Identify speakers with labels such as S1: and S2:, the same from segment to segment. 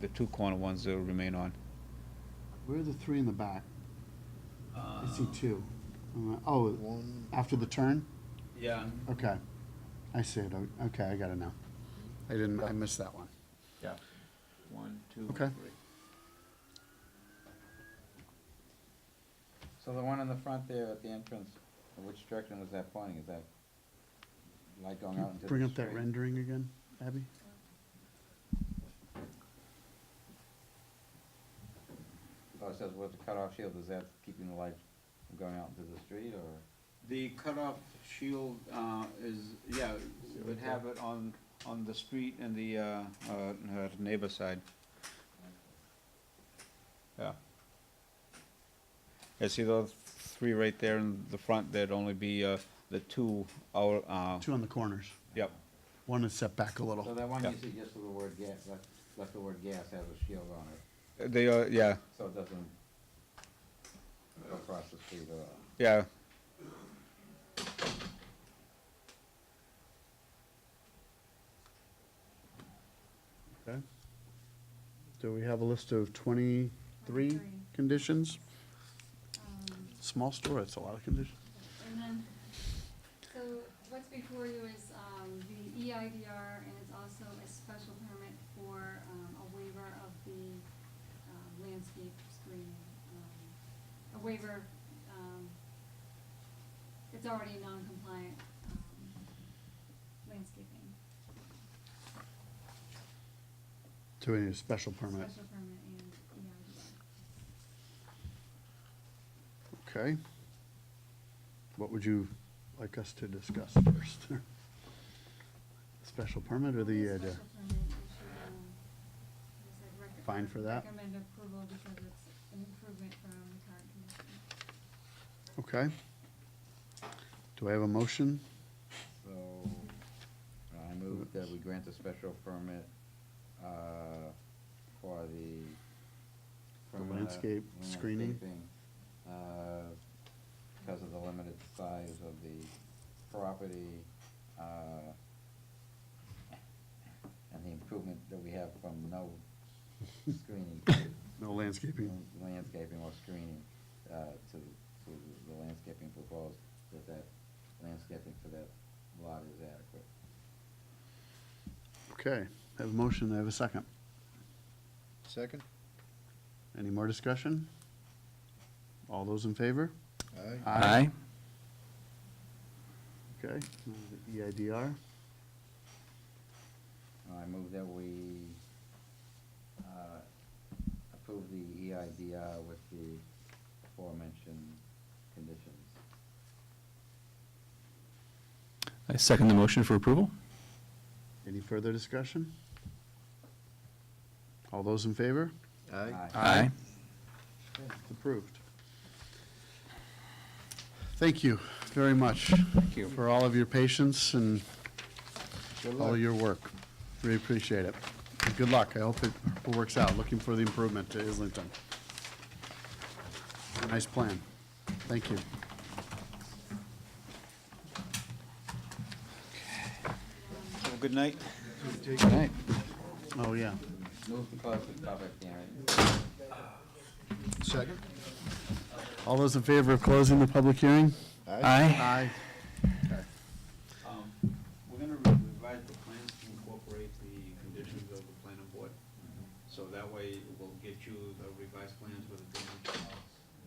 S1: the two corner ones that'll remain on.
S2: Where are the three in the back? I see
S3: Um,
S2: two. Uh, Oh,
S4: One,
S2: after the turn?
S3: Yeah,
S2: Okay. I see it. O- Okay, I got it now. I didn't, I missed that one.
S3: yeah. One, two,
S2: Okay.
S3: three.
S5: So the one in the front there at the entrance, which direction was that pointing? Is that light going
S2: Can you
S5: out into the
S2: Bring up that
S5: street?
S2: rendering again, Abby?
S5: Oh, it says with the cutoff shield, is that keeping the light from going out into the street or?
S1: The cutoff shield uh, is, yeah, would have it on, on the street and the uh, uh, uh, neighbor side. Yeah. I see those three right there in the front, there'd only be uh, the two, our, uh,
S2: Two on the corners.
S1: yep,
S2: One is set back a
S5: So
S2: little.
S5: that one
S1: Yeah.
S5: you suggested the word gas, left, left the word gas has a shield on it,
S1: they are, yeah,
S5: so it doesn't go across the street at all.
S1: yeah.
S2: Okay. Do we have a list of twenty-three
S6: 23.
S2: conditions?
S6: Um,
S2: Small store, it's a lot of conditions.
S6: And then, so what's before you is um, the EIDR, and it's also a special permit for um, a waiver of the um, landscape screening. um, A waiver, um, it's already non-compliant um, landscaping,
S2: Do we need a special permit?
S6: special permit and E EIDR.
S2: Okay. What would you like us to discuss first? Special permit or the, uh,
S6: Special
S2: the-
S6: permit issue, um, is it rec-
S2: Fine for that?
S6: Recommend approval because it's an improvement from the current condition.
S2: okay. Do I have a motion?
S5: So, I move that we grant a special permit, uh, for the.
S2: The
S5: permanent
S2: landscape screening?
S5: landscaping, Uh, because of the limited size of the property, uh, and the improvement that we have from no screening to
S2: No landscaping.
S5: landscaping or screening uh, to, to the landscaping proposed, that that landscaping for that lot is adequate.
S2: Okay, I have a motion, I have a second.
S4: second?
S2: Any more discussion? All those in favor?
S4: Aye.
S2: Aye. Okay, E now the EIDR,
S5: I move that we uh, approve the E EIDR with the aforementioned conditions.
S7: I second the motion for approval.
S2: any further discussion? All those in favor?
S4: Aye.
S7: Aye.
S2: It's approved. Thank you very much. Thank
S1: you.
S2: For all of your patience and
S4: Good
S2: all
S4: luck.
S2: your work. Really appreciate it. And Good luck. I hope it works out. Looking for the improvement to Islington. Nice plan. Thank you.
S1: Have a good night.
S2: Oh, yeah.
S5: Move to close the public hearing.
S4: Second?
S2: All those in favor of closing the public hearing?
S7: Aye.
S2: Aye.
S3: Um, We're gonna re- revise the plans to incorporate the conditions of the planning board.
S2: Mm-hmm.
S3: So that way, we'll get you the revised plans with the dimensions,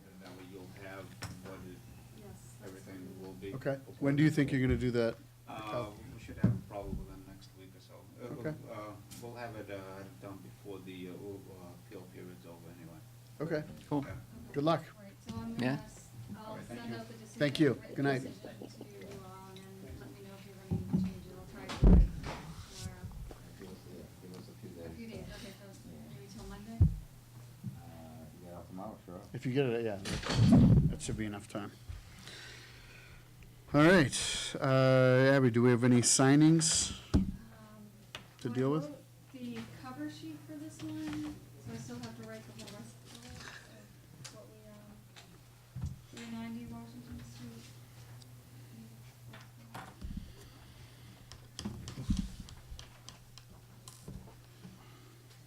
S3: and that way you'll have what it,
S6: Yes. that's
S3: everything
S6: fine.
S3: will be.
S2: Okay. When do you think you're going to do that?
S3: Uh, we should have it probably within the next week or so. Uh, we'll-
S2: Okay.
S3: Uh, we'll have it, uh, done before the, uh, uh, appeal period's over anyway.
S2: Okay.
S7: Cool.
S3: Okay?
S2: Good luck.
S6: All right, so I'm
S7: Yeah.
S6: gonna, s- I'll
S3: Okay, thank
S6: send
S3: you.
S6: out the decision.
S2: Thank you.
S6: written
S2: Good night.
S6: decision To you all, and then let me know if you have any changes. I'll try to do it tomorrow.
S5: Give us, a- give us a few
S6: A few
S5: days.
S6: days, okay, so maybe till Monday?
S5: Uh, You got out tomorrow, sure.
S2: If you get it, yeah, that should be enough time. All right, uh, Abby, do we have any signings?
S6: Um,
S2: To
S6: I
S2: deal with?
S6: wrote The cover sheet for this one, so I still have to write the whole rest of it, of what we, um, three ninety Washington Street.